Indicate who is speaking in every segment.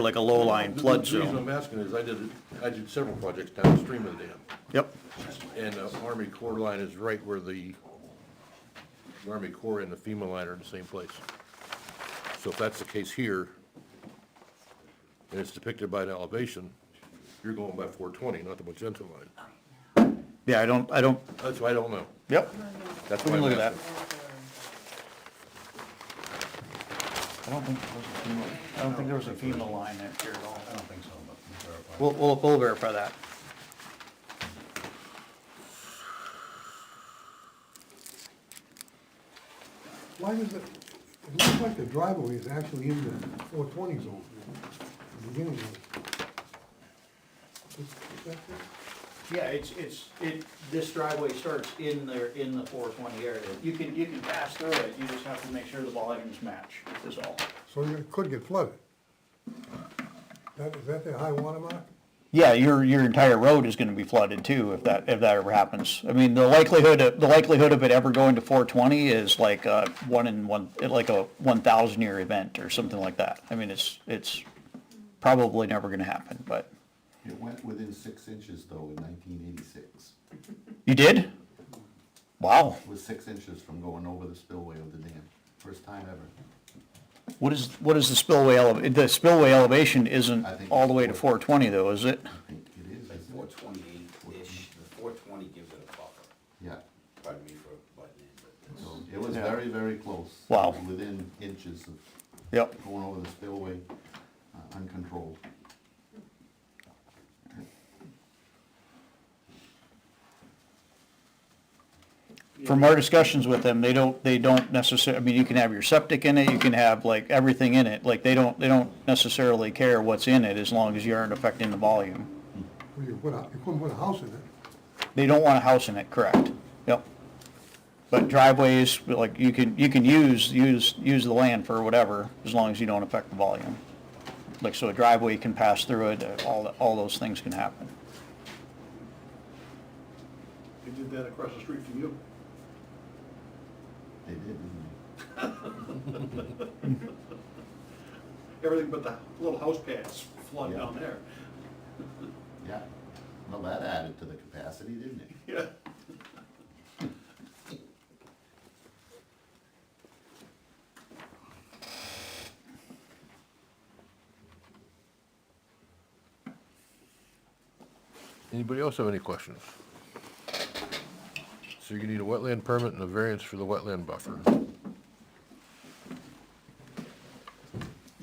Speaker 1: like a low-lying flood
Speaker 2: The reason
Speaker 1: zone.
Speaker 2: I'm asking is I did, I did several projects downstream of the dam,
Speaker 1: Yep,
Speaker 2: and the Army Corps line is right where the the Army Corps and the FEMA line are in the same place. So if that's the case here, and it's depicted by an elevation, you're going by four twenty, not the magenta line.
Speaker 1: yeah, I don't, I don't,
Speaker 2: That's why I don't know.
Speaker 1: yep,
Speaker 2: That's
Speaker 1: we
Speaker 2: why
Speaker 1: can
Speaker 2: I'm
Speaker 1: look at that.
Speaker 2: asking.
Speaker 1: I don't think there was a FEMA, I don't think there was a FEMA line there, Jared, at all.
Speaker 3: I don't think so, but we'll verify.
Speaker 1: We'll, we'll, we'll verify that.
Speaker 4: Why does it, it looks like the driveway is actually in the four twenty zone, the beginning of it. Is- is that it?
Speaker 5: Yeah, it's, it's, it, this driveway starts in there, in the four twenty area. You can, you can pass through it, you just have to make sure the volumes match, is all.
Speaker 4: So it could get flooded. That, is that the high water mark?
Speaker 1: Yeah, your, your entire road is gonna be flooded too, if that, if that ever happens. I mean, the likelihood, of- the likelihood of it ever going to four twenty is like a one in one, like a one thousand year event or something like that. I mean, it's, it's probably never gonna happen, but,
Speaker 3: It went within six inches though in nineteen eighty-six.
Speaker 1: you did? Wow,
Speaker 3: It was six inches from going over the spillway of the dam, first time ever.
Speaker 1: what is, what is the spillway ele, the spillway elevation isn't
Speaker 3: I think
Speaker 1: all the way to
Speaker 3: it's
Speaker 1: four
Speaker 3: four-
Speaker 1: twenty
Speaker 3: Mm-hmm.
Speaker 1: though, is it?
Speaker 3: I think it is,
Speaker 6: Like
Speaker 3: isn't
Speaker 6: four
Speaker 3: it?
Speaker 6: twenty-eight-ish, four twenty gives it a buffer,
Speaker 3: Yeah,
Speaker 6: pardon me for butting in, but it's.
Speaker 3: so it was very, very close.
Speaker 1: Wow.
Speaker 3: Within inches of
Speaker 1: Yep,
Speaker 3: going over the spillway, uh, uncontrolled.
Speaker 1: from our discussions with them, they don't, they don't necessarily, I mean, you can have your septic in it, you can have like everything in it, like they don't, they don't necessarily care what's in it as long as you aren't affecting the volume.
Speaker 4: Well, you put a, you couldn't put a house in it.
Speaker 1: They don't want a house in it, correct? Yep. But driveways, like you can, you can use, use, use the land for whatever, as long as you don't affect the volume. Like, so a driveway can pass through it, uh, all, all those things can happen.
Speaker 2: They did that across the street from you.
Speaker 3: They did, didn't
Speaker 2: Everything but the little house pads flood
Speaker 3: down
Speaker 2: there.
Speaker 3: they? Yeah. Well, that added to the capacity, didn't it?
Speaker 2: Yeah. Anybody else have any questions? So you need a wetland permit and a variance for the wetland buffer.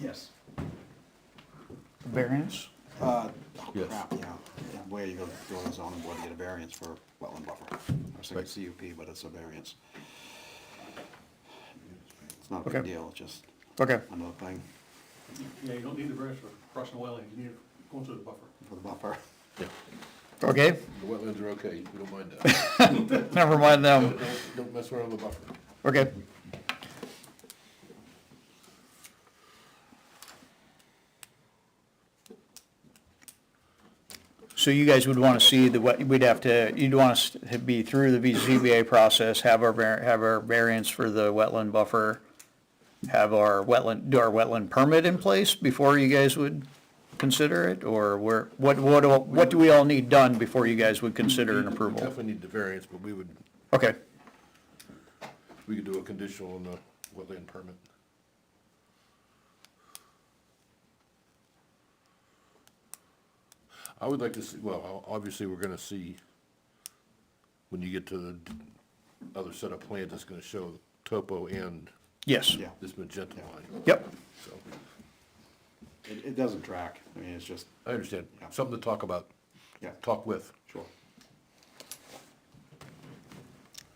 Speaker 5: Yes.
Speaker 1: Variance?
Speaker 7: Uh,
Speaker 2: Yes.
Speaker 7: crap, yeah, yeah, where you go, go to the zoning board to get a variance for wetland buffer. I was
Speaker 2: Right.
Speaker 7: thinking CUP, but it's a variance. It's not a
Speaker 1: Okay.
Speaker 7: big deal, it's just
Speaker 1: Okay,
Speaker 7: another thing
Speaker 8: Yeah, you don't need the variance for crossing the wetland, you need it going through the buffer.
Speaker 7: for the buffer.
Speaker 1: okay,
Speaker 2: The wetlands are okay, we don't mind that.
Speaker 1: never mind them.
Speaker 2: Don't, don't mess around with the buffer.
Speaker 1: Okay. So you guys would want to see the, wet- we'd have to, you'd want us to be through the ZBA process, have our, var- have our variance for the wetland buffer, have our wetland, do our wetland permit in place before you guys would consider it? Or where, what, what, all- what do we all need done before you guys would consider an
Speaker 2: We
Speaker 1: approval?
Speaker 2: Definitely need the variance, but we would,
Speaker 1: Okay,
Speaker 2: we could do a conditional on the wetland permit. I would like to see, well, o- obviously, we're gonna see, when you get to the other set of plans, it's gonna show topo and
Speaker 1: yes.
Speaker 7: Yeah,
Speaker 2: this magenta line,
Speaker 1: Yep,
Speaker 2: so,
Speaker 7: it, it doesn't track, I mean, it's just,
Speaker 2: I understand, something to talk about,
Speaker 7: yeah,
Speaker 2: talk with.
Speaker 7: sure.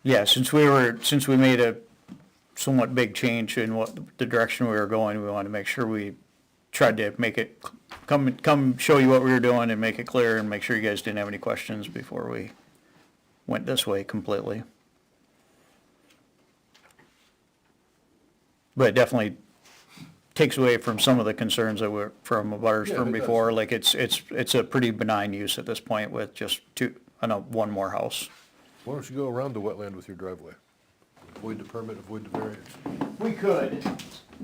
Speaker 1: Yeah, since we were, since we made a somewhat big change in what, the direction we were going, we wanted to make sure we tried to make it, come, come show you what we were doing and make it clear and make sure you guys didn't have any questions before we went this way completely. But it definitely takes away from some of the concerns that were, from butters
Speaker 2: Yeah, it
Speaker 1: from
Speaker 2: does.
Speaker 1: before, like it's, it's, it's a pretty benign use at this point with just two, I know, one more house.
Speaker 2: Why don't you go around the wetland with your driveway? Avoid the permit, avoid the variance.
Speaker 5: We could,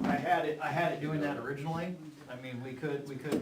Speaker 5: I had it, I had it doing that originally, I
Speaker 1: I mean, we could, we could